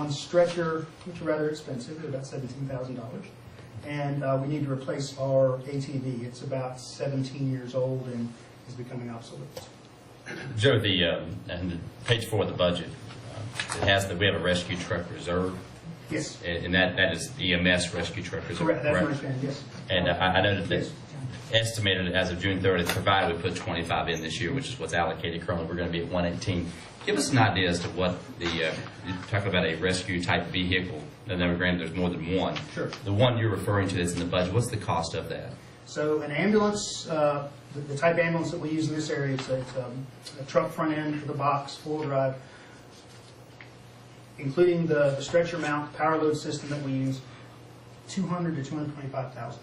one stretcher, which are rather expensive, they're about seventeen thousand dollars. And uh, we need to replace our ATV. It's about seventeen years old and is becoming obsolete. Joe, the, um, and the page four of the budget, uh, it has that we have a rescue truck reserve, Yes, and and that, that is EMS rescue truck reserve. correct, that's my understanding, yes. And uh, I I know that Yes. they estimated as of June 30th, provided we put 25 in this year, which is what's allocated currently, we're going to be at 118. Give us an idea as to what the, uh, you talk about a rescue-type vehicle, and then granted, there's more than one. Sure. The one you're referring to that's in the budget, what's the cost of that? So an ambulance, uh, the the type ambulance that we use in this area, it's a it's, um, a truck front end with a box, full drive, including the the stretcher mount, power load system that we use, $200,000 to $225,000.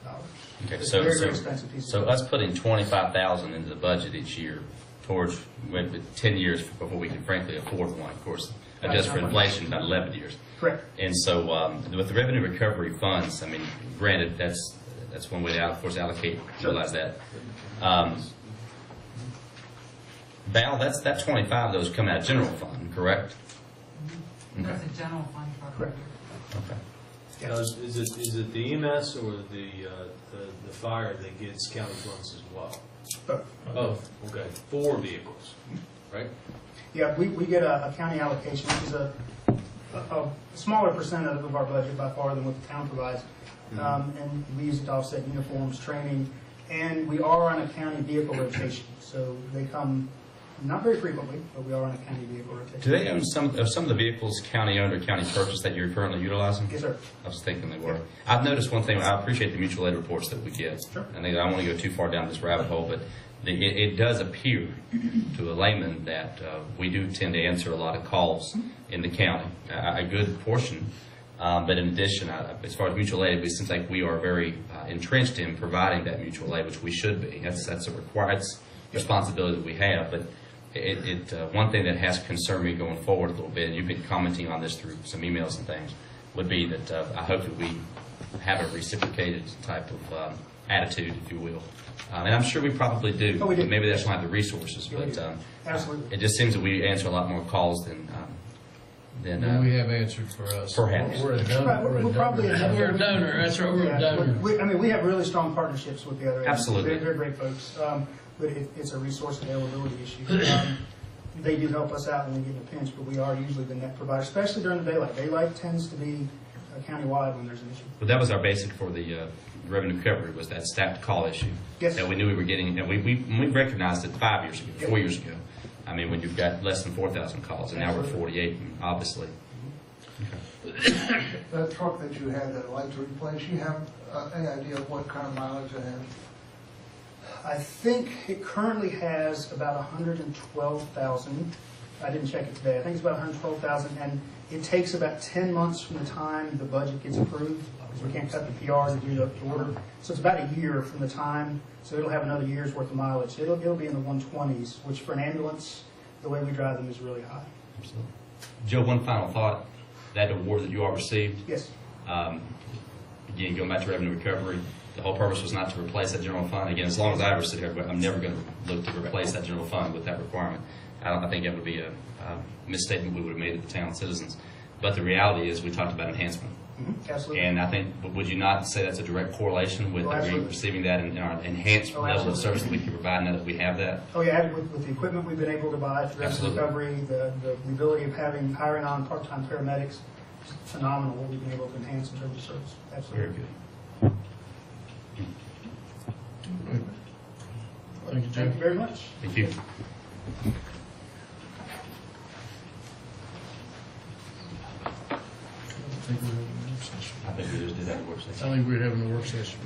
Okay, It's so- a very, so- very expensive piece So of equipment. us putting 25,000 into the budget each year towards, wait, but 10 years before we can frankly afford one, of course, adjust for inflation, about 11 years. Correct. And so um, with the revenue recovery funds, I mean, granted, that's, that's one way to, of course, allocate, realize that. Um, Val, that's, that 25, those come out of general fund, correct? Okay. That's a general fund program. Correct. Okay. Yeah. Now, is is it, is it the EMS or the, uh, the, the fire that gets county funds as well? But, Both. Okay, four vehicles, right? Yeah, we, we get a a county allocation, which is a, a a smaller percent of of our budget by far than what the town provides. Mm-hmm. Um, And we use it to offset uniforms, training, and we are on a county vehicle rotation. So they come, not very frequently, but we are on a county vehicle Do rotation. they own some, are some of the vehicles county-owned or county purchased that you're currently utilizing? Yes, sir. I was thinking they were. I've noticed one thing, I appreciate the mutual aid reports that we get. Sure. And I don't want to go too far down this rabbit hole, but the, it, it does appear to a layman that, uh, we do tend to answer a lot of calls in the county, a, a good portion. Um, but in addition, I, as far as mutual aid, it seems like we are very uh, entrenched in providing that mutual aid, which we should be. That's, that's a required responsibility that we have, but it, it, uh, one thing that has concerned me going forward a little bit, and you've been commenting on this through some emails and things, would be that uh, I hope that we have a reciprocated type of um, attitude, if you will. Um, And I'm sure we probably do. Oh, we do. Maybe that's not the resources, Yeah, we but do. um, Absolutely. it just seems that we answer a lot more calls than, um, than, Then we uh, have answered for us. Perhaps. We're a Right, donor. we're- we're a we're probably donor. a- We're a donor, that's right, we're a Yeah, donor. we- I mean, we have really strong partnerships with the other. agencies. Absolutely. They're, they're great folks, um, but it, it's a resource availability issue. Um, They do help us out when we get in a pinch, but we are usually the net provider, especially during the daylight. Daylight tends to be uh, countywide when there's an issue. but that was our basic for the uh, revenue recovery, was that staffed call issue. Yes. That we knew we were getting, and we, we we recognized it five years ago, Yep. four years ago. I mean, when you've got less than 4,000 calls, and now we're Absolutely. 48, obviously. That truck that you had that light to replace, you have uh, any idea of what kind of mileage it has? I think it currently has about 112,000. I didn't check it today. I think it's about 112,000, and it takes about 10 months from the time the budget gets approved, because we can't cut the PRs and do the the order. So it's about a year from the time, so it'll have another year's worth of mileage. It'll, it'll be in the 120s, which for an ambulance, the way we drive them is really high. Absolutely. Joe, one final thought. That award that you all received, Yes, um, again, going back to revenue recovery, the whole purpose was not to replace that general fund. Again, as long as I ever sit here, I'm never going to look to replace that general fund with that requirement. I don't, I think that would be a um, misstatement we would have made to the town citizens. But the reality is, we talked about enhancement. Mhm, absolutely. And I think, but would you not say that's a direct correlation with Oh, that we absolutely. receiving that in in our enhanced Oh, level of absolutely. service that we can provide now that we have that? Oh, yeah, with, with the equipment we've been able to buy, through the Absolutely. recovery, the, the the ability of having, hiring on part-time paramedics, phenomenal, what we've been able to enhance in terms of service, Very absolutely. good. Thank you, Joe. Thank you very much. Thank you. I think we're having a work session. I think we just did that work session. I think we're having a work session.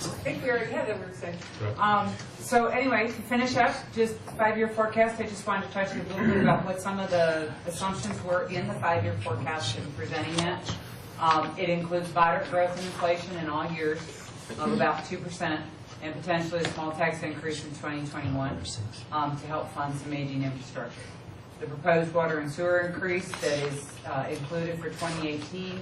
I think we already had that work session. Um, So anyway, to finish up, just five-year forecast, I just wanted to touch a little bit about what some of the assumptions were in the five-year forecast and presenting it. Um, It includes moderate growth in inflation in all years of about 2% and potentially a small tax increase in 2021 um, to help fund some aging infrastructure. the proposed water and sewer increase that is uh, included for 2018,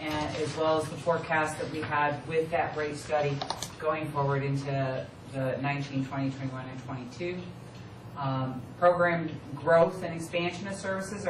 and as well as the forecast that we had with that rate study going forward into the 19, 20, 21, and 22. um, programmed growth and expansion of services